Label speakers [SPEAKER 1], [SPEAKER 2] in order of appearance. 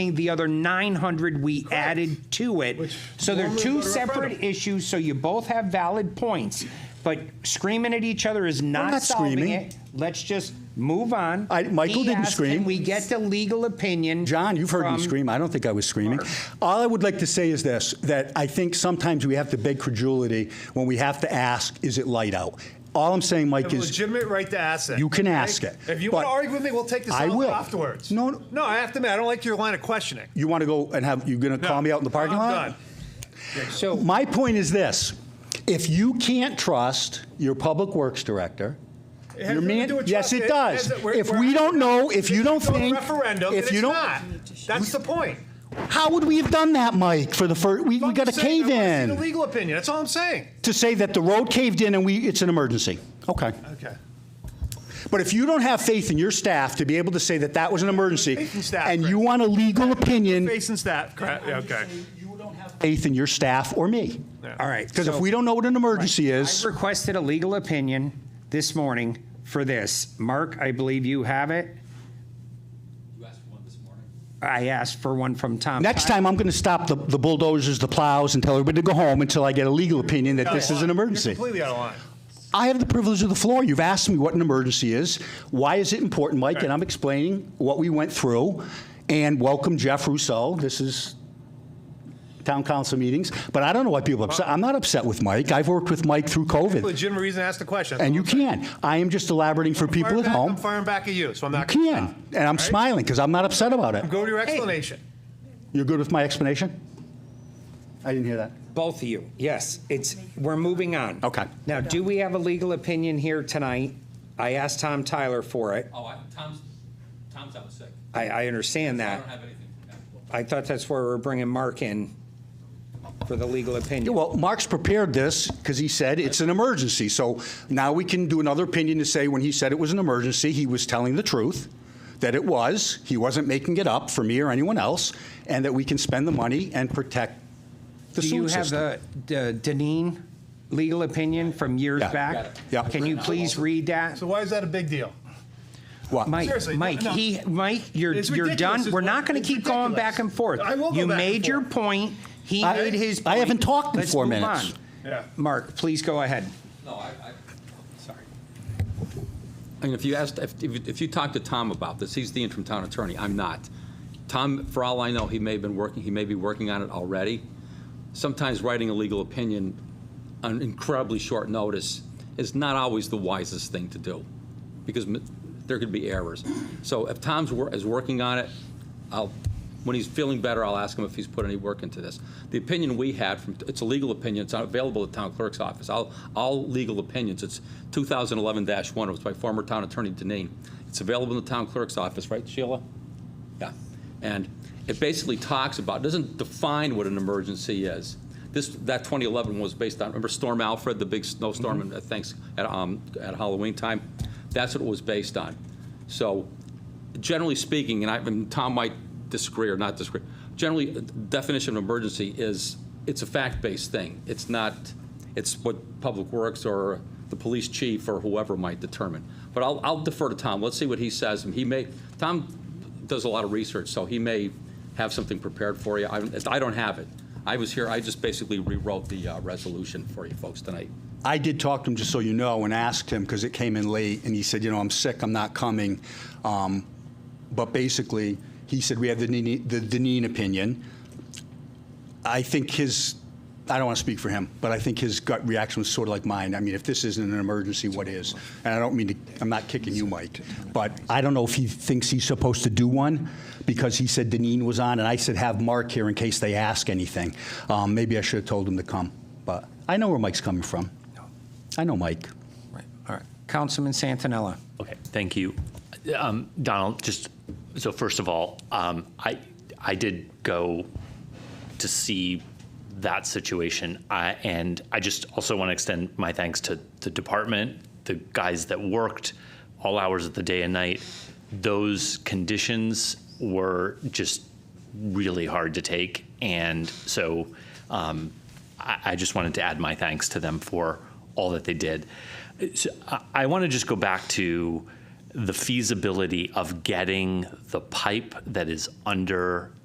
[SPEAKER 1] the other 900 we added to it. So they're two separate issues, so you both have valid points. But screaming at each other is not
[SPEAKER 2] not
[SPEAKER 1] solving
[SPEAKER 2] screaming.
[SPEAKER 1] it. Let's just move on.
[SPEAKER 2] I- Michael
[SPEAKER 1] He
[SPEAKER 2] didn't
[SPEAKER 1] asked,
[SPEAKER 2] scream.
[SPEAKER 1] Can we get the legal opinion?
[SPEAKER 2] John, you've heard me
[SPEAKER 1] from-
[SPEAKER 2] scream. I don't think I was screaming.
[SPEAKER 1] Mark.
[SPEAKER 2] All I would like to say is this that I think sometimes we have to beg credulity when we have to ask, is it light out? All I'm saying, Mike,
[SPEAKER 3] have a
[SPEAKER 2] is
[SPEAKER 3] legitimate right to ask that.
[SPEAKER 2] You can
[SPEAKER 3] okay?
[SPEAKER 2] ask it,
[SPEAKER 3] If you
[SPEAKER 2] but
[SPEAKER 3] want to argue with me, we'll take this
[SPEAKER 2] I
[SPEAKER 3] off
[SPEAKER 2] will.
[SPEAKER 3] afterwards.
[SPEAKER 2] No, no.
[SPEAKER 3] no, I have to admit, I don't like your line of questioning.
[SPEAKER 2] you want to go and have, you're going to call
[SPEAKER 3] No.
[SPEAKER 2] me out in the parking
[SPEAKER 3] I'm
[SPEAKER 2] lot?
[SPEAKER 3] done.
[SPEAKER 1] So,
[SPEAKER 2] My point is this if you can't trust your public works director,
[SPEAKER 3] It has
[SPEAKER 2] your
[SPEAKER 3] nothing to
[SPEAKER 2] man-
[SPEAKER 3] do with
[SPEAKER 2] yes,
[SPEAKER 3] trust.
[SPEAKER 2] it does.
[SPEAKER 3] has- we're-
[SPEAKER 2] if
[SPEAKER 3] we're-
[SPEAKER 2] we don't know, if you don't
[SPEAKER 3] go to
[SPEAKER 2] think,
[SPEAKER 3] referendum,
[SPEAKER 2] if
[SPEAKER 3] then
[SPEAKER 2] you
[SPEAKER 3] it's
[SPEAKER 2] don't,
[SPEAKER 3] not. that's the point.
[SPEAKER 2] how would we have done that, Mike? For the first, we, we got a
[SPEAKER 3] I'm saying
[SPEAKER 2] cave
[SPEAKER 3] I wanna see The
[SPEAKER 2] in
[SPEAKER 3] legal opinion. That's all I'm saying.
[SPEAKER 2] to say that the road caved in and we it's an emergency. Okay,
[SPEAKER 3] Okay.
[SPEAKER 2] but if you don't have faith in your staff to be able to say that that was an emergency,
[SPEAKER 3] Faith in staff,
[SPEAKER 2] and
[SPEAKER 3] Greg.
[SPEAKER 2] you want a legal opinion,
[SPEAKER 3] Facing staff. Crap. yeah, Uh, Okay.
[SPEAKER 2] you don't have faith in your staff or me,
[SPEAKER 1] all right.
[SPEAKER 2] because
[SPEAKER 1] so-
[SPEAKER 2] if we don't know what an emergency is,
[SPEAKER 1] I requested a legal opinion this morning for this. Mark, I believe you have it.
[SPEAKER 4] You asked for one this morning.
[SPEAKER 1] I asked for one from Tom.
[SPEAKER 2] Next time, I'm going to stop the, the bulldozers, the plows, and tell everybody to go home until I get a legal opinion that this is an
[SPEAKER 3] You're
[SPEAKER 2] emergency.
[SPEAKER 3] completely out of line.
[SPEAKER 2] I have the privilege of the floor. You've asked me what an emergency is. Why is it important, Mike? And I'm explaining what we went through. And welcome, Jeff Rousseau. This is town council meetings. But I don't know why people are upset. I'm not upset with Mike. I've worked with Mike through COVID.
[SPEAKER 3] Legitimate reason to ask the question.
[SPEAKER 2] And you can. I am just elaborating for people
[SPEAKER 3] Firing
[SPEAKER 2] at
[SPEAKER 3] back, I'm
[SPEAKER 2] home.
[SPEAKER 3] firing back at you, so I'm
[SPEAKER 2] You
[SPEAKER 3] not. gonna
[SPEAKER 2] can. And I'm smiling because I'm not upset about it.
[SPEAKER 3] Go to your explanation.
[SPEAKER 2] You're good with my explanation? I didn't hear that.
[SPEAKER 1] Both of you, yes, it's, we're moving on.
[SPEAKER 2] Okay.
[SPEAKER 1] Now, do we have a legal opinion here tonight? I asked Tom Tyler for it.
[SPEAKER 4] Oh, I, Tom's, Tom's out sick.
[SPEAKER 1] I, I understand
[SPEAKER 4] I don't
[SPEAKER 1] that.
[SPEAKER 4] have anything from him.
[SPEAKER 1] I thought that's where we're bringing Mark in for the legal
[SPEAKER 2] Yeah,
[SPEAKER 1] opinion.
[SPEAKER 2] well, Mark's prepared this because he said it's an emergency. So now we can do another opinion to say when he said it was an emergency, he was telling the truth, that it was, he wasn't making it up for me or anyone else, and that we can spend the money and protect the
[SPEAKER 1] Do you
[SPEAKER 2] sewer
[SPEAKER 1] have
[SPEAKER 2] system.
[SPEAKER 1] the the Deneen legal opinion from years
[SPEAKER 2] Yeah.
[SPEAKER 1] back?
[SPEAKER 2] Yeah.
[SPEAKER 1] Can you please read that?
[SPEAKER 3] So why is that a big deal?
[SPEAKER 2] What?
[SPEAKER 1] Mike,
[SPEAKER 3] Seriously, no,
[SPEAKER 1] Mike,
[SPEAKER 3] no.
[SPEAKER 1] he, Mike, you're,
[SPEAKER 3] It's
[SPEAKER 1] you're
[SPEAKER 3] ridiculous
[SPEAKER 1] done.
[SPEAKER 3] is
[SPEAKER 1] We're
[SPEAKER 3] what-
[SPEAKER 1] not going to
[SPEAKER 3] it's
[SPEAKER 1] keep going
[SPEAKER 3] ridiculous.
[SPEAKER 1] back and forth.
[SPEAKER 3] I will go
[SPEAKER 1] You
[SPEAKER 3] back and
[SPEAKER 1] made your
[SPEAKER 3] forth.
[SPEAKER 1] point. He
[SPEAKER 2] I-
[SPEAKER 1] made his
[SPEAKER 2] I
[SPEAKER 1] point.
[SPEAKER 2] haven't talked in
[SPEAKER 1] Let's
[SPEAKER 2] four
[SPEAKER 1] move
[SPEAKER 2] minutes.
[SPEAKER 1] on.
[SPEAKER 3] Yeah.
[SPEAKER 1] Mark, please go ahead.
[SPEAKER 4] No, I, I, sorry. I mean, if you asked, if, if if you talked to Tom about this, he's the interim town attorney, I'm not. Tom, for all I know, he may have been working, he may be working on it already. Sometimes writing a legal opinion on incredibly short notice is not always the wisest thing to do, because m- there could be errors. So if Tom's, wor- is working on it, I'll, when he's feeling better, I'll ask him if he's put any work into this. The opinion we had from, it's a legal opinion, it's not available at town clerk's office, all, all legal opinions, it's 2011-1, it was by former town attorney Denine. It's available in the town clerk's office, right Sheila? Yeah. And it basically talks about, doesn't define what an emergency is. This, that 2011 was based on, remember Storm Alfred, the big snowstorm, and uh, thanks, at, um, at Halloween time? That's what it was based on. So generally speaking, and I, and Tom might disagree or not disagree, generally, the definition of emergency is, it's a fact-based thing. It's not, it's what Public Works or the police chief or whoever might determine. But I'll, I'll defer to Tom. Let's see what he says. And he may, Tom does a lot of research, so he may have something prepared for you. I, I don't have it. I was here, I just basically rewrote the uh, resolution for you folks tonight.
[SPEAKER 2] I did talk to him, just so you know, and asked him, because it came in late, and he said, you know, I'm sick, I'm not coming. Um, But basically, he said, we have the Deneen the Deneen opinion. I think his, I don't want to speak for him, but I think his gut reaction was sort of like mine. I mean, if this isn't an emergency, what is? And I don't mean to, I'm not kicking you, Mike, but I don't know if he thinks he's supposed to do one because he said Deneen was on, and I said, have Mark here in case they ask anything. Um, Maybe I should have told him to come, but I know where Mike's coming from. I know Mike.
[SPEAKER 5] Right, all right.
[SPEAKER 1] Councilman Santinella.
[SPEAKER 5] Okay, thank you. Um, Donald, just, so first of all, um, I, I did go to see that situation. I, and I just also want to extend my thanks to the department, the guys that worked all hours of the day and night. Those conditions were just really hard to take. And so um, I, I just wanted to add my thanks to them for all that they did. So I, I want to just go back to the feasibility of getting the pipe that is under